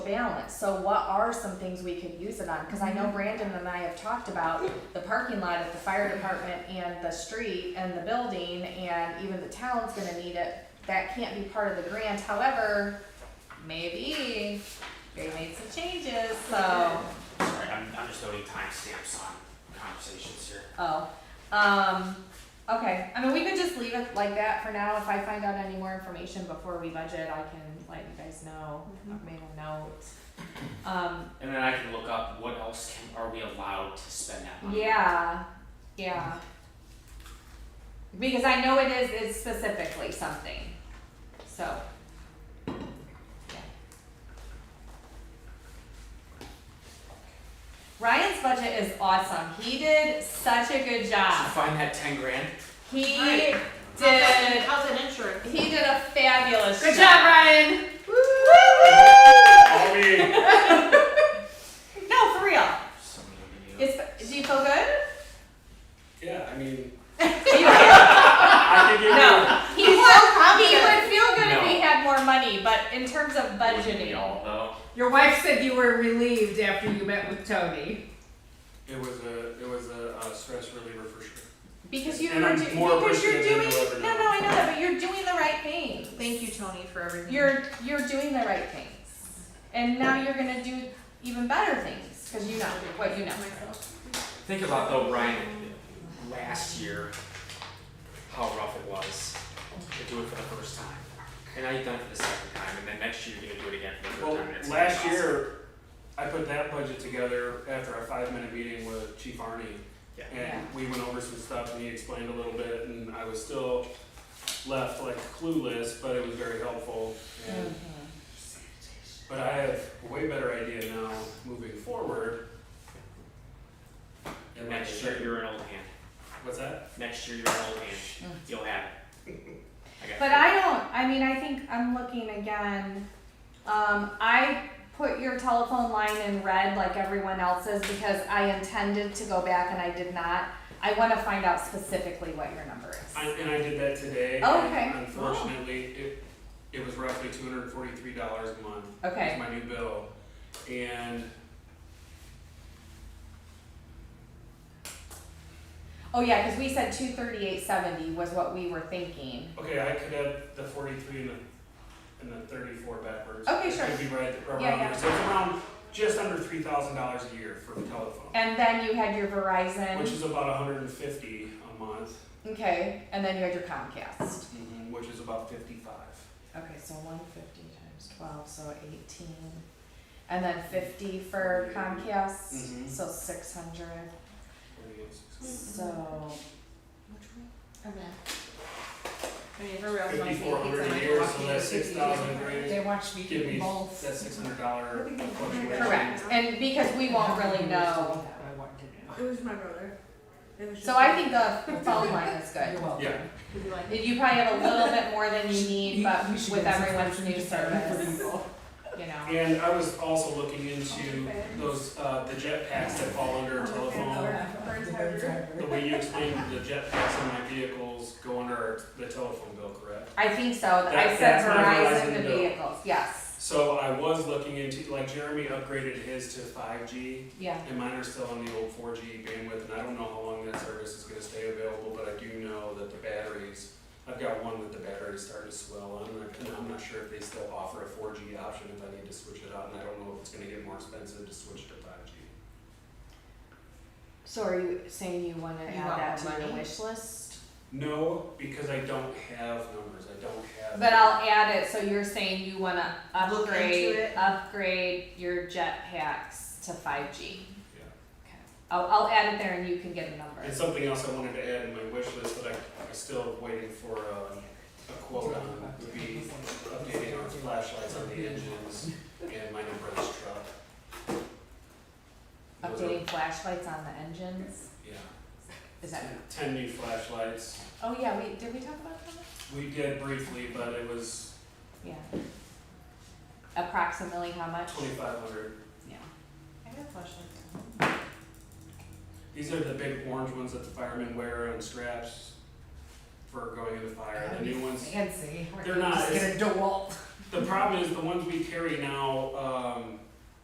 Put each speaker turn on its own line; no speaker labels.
balance. So what are some things we could use it on? Cause I know Brandon and I have talked about the parking lot at the fire department and the street and the building and even the town's gonna need it. That can't be part of the grant, however, maybe they made some changes, so.
Sorry, I'm, I'm just noting timestamps on conversations here.
Oh, um, okay, I mean, we could just leave it like that for now, if I find out any more information before we budget, I can let you guys know, I've made a note. Um,
And then I can look up what else can, are we allowed to spend that money? on.
yeah, yeah. Because I know it is, it's specifically something, so. yeah. Ryan's budget is awesome, he did such a good
Did you
job,
find that ten grand?
he
Right.
did
How's that insurance?
He did a fabulous
Good job,
job.
Ryan.
All me.
No, for real.
Somebody
It's, do you feel good?
Yeah, I mean,
You feel-
I can give
no. He would, he
confident.
would feel good if
No.
he had more money, but in terms of
Wouldn't we
budgeting.
all though?
Your wife said you were relieved after you met with Tony.
it was a it was a, uh stress reliever for sure.
Because you
And
were
I'm
do,
more
because you're
appreciative
doing
than you'll ever
no
know.
no I know that, but you're doing the right thing.
Thank you, Tony, for everything.
You're you're doing the right things. And now you're gonna do even better things because you know what you know.
Think about though, Ryan, last year, how rough it was to do it for the first time. And now you've done it for the second time, and then next year you're gonna do it again for the third
Well,
time. and it's gonna be
last
awesome.
year, I put that budget together after a five minute meeting with Chief Arnie.
Yeah.
And we went over some stuff and he explained a little bit and I was still left like clueless, but it was very helpful.
Mm.
And,
Mm-hmm.
but I have a way better idea now moving forward.
And
my-
next year you're an old hand.
What's that?
Next year you're an old hand. You'll have it. I got
Mm. But
you.
I don't, I mean, I think I'm looking again. Um, I put your telephone line in red like everyone else's because I intended to go back and I did not. I wanna find out specifically what your number
I,
is.
and I did that today. and
Oh, Okay. Wow.
Unfortunately, it, it was roughly two hundred and forty-three dollars a month. It's
Okay,
my new bill, and
oh yeah, cause we said two thirty-eight seventy was what we were thinking.
okay, I could have the forty-three and the, and the thirty-four backwards.
Okay,
It
sure.
Could be right around
Yeah, yeah.
there, so it's around just under three thousand dollars a year for telephone,
And then you had your
which
Verizon,
is about a hundred and fifty a month, mm-hmm,
okay, and then you had your Comcast.
which is about fifty-five.
Okay, so one fifty times twelve, so eighteen. And then fifty for
Mm-hmm.
Comcast,
Mhm.
so six hundred. So,
I mean, everybody else wants to
Fifty-four
eat pizza,
hundred a
I
year,
want
so
to
that's
eat
six
pizza.
thousand grand,
watched me
give me that six hundred dollar fluctuation.
correct, and because we won't really know.
It was my brother. It was
So I think the phone line is good.
Yeah.
Would you like-
You probably have a little bit more than you need, but with everyone's new service,
Well,
you know.
And I was also looking into those, uh, the jet packs that fall under a telephone. The way you explained the jet packs on my vehicles go under the telephone bill, correct?
I think so, I
That-
said
that's my
Verizon to
Verizon bill.
vehicles, yes,
So I was looking into, like Jeremy upgraded his to five G
yeah.
and mine are still on the old four G bandwidth and I don't know how long that service is gonna stay available, but I do know that the batteries, I've got one that the battery is starting to swell on and I'm- I'm not sure if they still offer a four G option if I need to switch it out and I don't know if it's gonna get more expensive to switch to five G.
So are you saying you wanna
You want more money?
wish list?
No, because I don't have numbers, I don't have.
But I'll add it, so you're saying you wanna
Look into
upgrade,
it.
upgrade your jet packs to five G.
Yeah.
I'll, I'll add it there and you can get a number.
And something else I wanted to add in my wish list that I, I'm still waiting for a, a quote on would be updating our flashlights on the engines and my new brother's truck. Those are-
Updating flashlights on the engines,
Yeah,
is that?
ten new flashlights.
Oh yeah, we, did we talk about that?
We did briefly, but it was
Yeah. Approximately how much?
twenty-five hundred.
Yeah.
I got flashlights.
These are the big orange ones that the firemen wear on straps for going in the fire. The new ones,
Fancy.
They're not
Just
as-
get a DeWalt.
the problem is the ones we carry now, um,